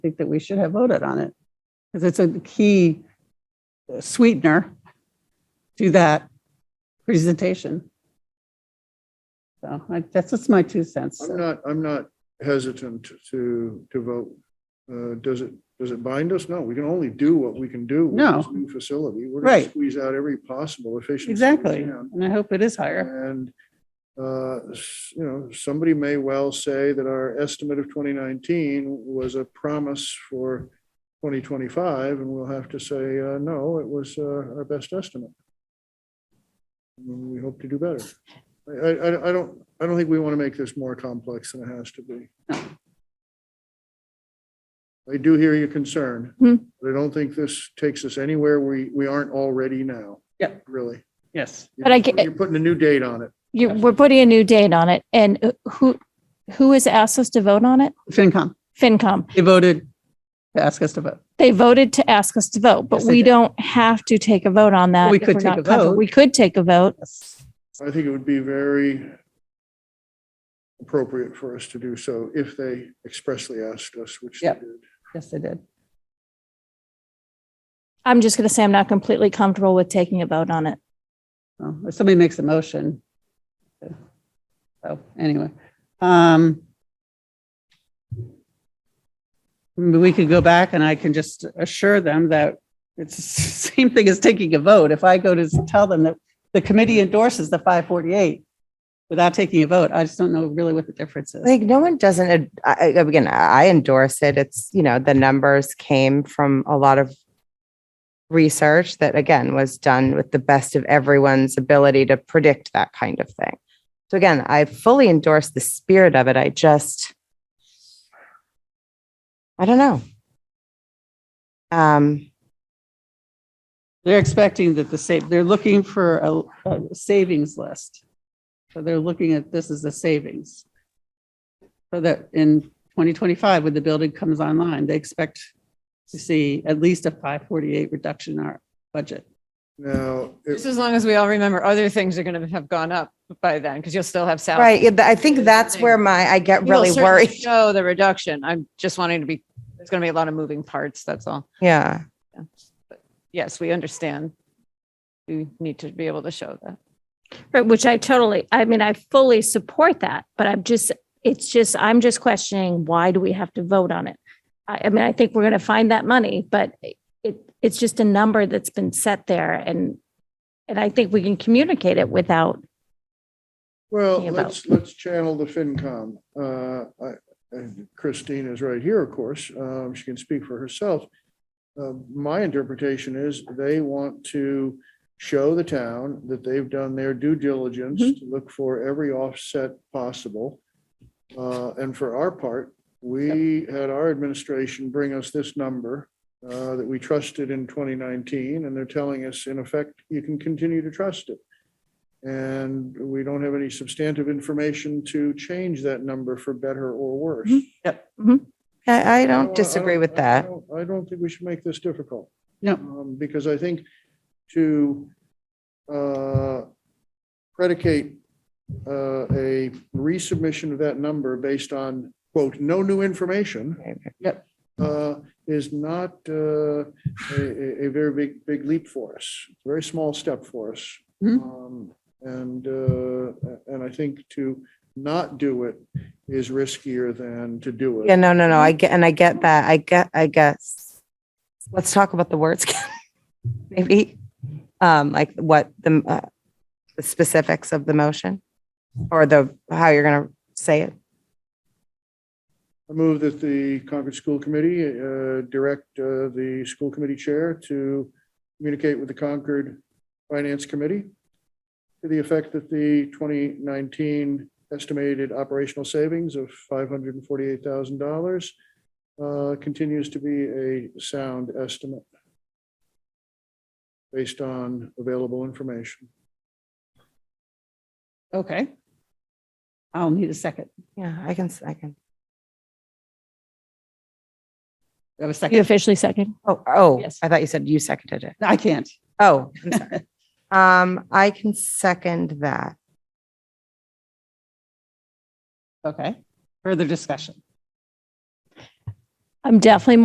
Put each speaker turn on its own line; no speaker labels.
think that we should have voted on it. Because it's a key sweetener to that presentation. So I, that's just my two cents.
I'm not, I'm not hesitant to, to vote. Uh, Does it, does it bind us? No, we can only do what we can do. with
No.
this New facility. We're going
Right.
to squeeze out every possible efficiency. we
Exactly.
can.
And I hope it is higher.
And, uh, s- you know, somebody may well say that our estimate of 2019 was a promise for 2025, and we'll have to say, uh, no, it was uh, our best estimate. We hope to do better. I, I- I, I don't, I don't think we want to make this more complex than it has to be. I do hear your concern,
Hmm.
but I don't think this takes us anywhere we, we aren't already now.
Yep.
Really.
Yes.
But I get-
You're putting a new date on it.
You, we're putting a new date on it and uh, who, who has asked us to vote on it?
FinCom,
FinCom.
they voted to ask us to vote.
They voted to ask us to vote, but
Yes, they
we
did.
don't have to take a vote on that.
We
if
could
we're
take
not
a
comfortable.
vote.
We could take a vote.
Yes.
I think it would be very appropriate for us to do so if they expressly asked us, which they
Yep.
did.
Yes, they did.
I'm just going to say I'm not completely comfortable with taking a vote on it.
Well, If somebody makes a motion. So anyway, um. We could go back and I can just assure them that it's the same thing as taking a vote. If I go to tell them that the committee endorses the five forty-eight without taking a vote, I just don't know really what the difference is.
Like no one doesn't, ad- I, I- again, I endorse it. It's, you know, the numbers came from a lot of research that again was done with the best of everyone's ability to predict that kind of thing. So again, I fully endorse the spirit of it. I just, I don't know. Um,
They're expecting that the same, they're looking for a, a savings list. So they're looking at, this as the savings. So that in 2025, when the building comes online, they expect to see at least a 548 reduction in our budget.
Now,
Just
it-
as long as we all remember, other things are going to have gone up by then, because you'll still have salaries.
right. yeah, th- I think that's where my, I get
You will
really
certainly
worried.
Show the reduction. I'm just wanting to be, there's going to be a lot of moving parts, that's all.
Yeah.
Yes, we understand. We need to be able to show that.
Right, which I totally, I mean, I fully support that, but I'm just, it's just, I'm just questioning, why do we have to vote on it? I, I mean, I think we're gonna find that money, but it, it's just a number that's been set there and, and I think we can communicate it without,
well,
Thinking about-
let's, let's channel the FinCom. Uh, I- and Christine is right here, of course. Um, She can speak for herself. Uh, My interpretation is they want to show the town that they've done their due diligence
Mm-hmm.
to look for every offset possible. Uh, And for our part, we had our administration bring us this number uh, that we trusted in 2019, and they're telling us, in effect, you can continue to trust it. And we don't have any substantive information to change that number for better or worse.
I, I
I
don't
I
disagree with
I- I
that.
don't- I don't think we should make this difficult.
No.
Um, Because I think to uh, predicate uh, a resubmission of that number based on, quote, no new information.
Yep.
uh, Is not uh, a, a- a very big, big leap for us, It's a very small step for us.
Mhm.
Um, And, uh, and I think to not do it is riskier than to do it.
Yeah, no, no, no. I get, and I get that. I get, I guess. Let's talk about the words, maybe, um, like what the, uh, the specifics of the motion or the, how you're going to say it.
I move that the Concord School Committee uh, direct uh, the school committee chair to communicate with the Concord Finance Committee to the effect that the 2019 estimated operational savings of $548,000 uh, continues to be a sound estimate based on available information.
Okay. I'll need a second.
Yeah, I can, s- I can.
I have a
you
second.
officially second.
Oh, oh,
Yes.
I thought you said you seconded it.
I can't.
Oh, I'm sorry. Um, I can second that.
Okay. Further discussion.
I'm definitely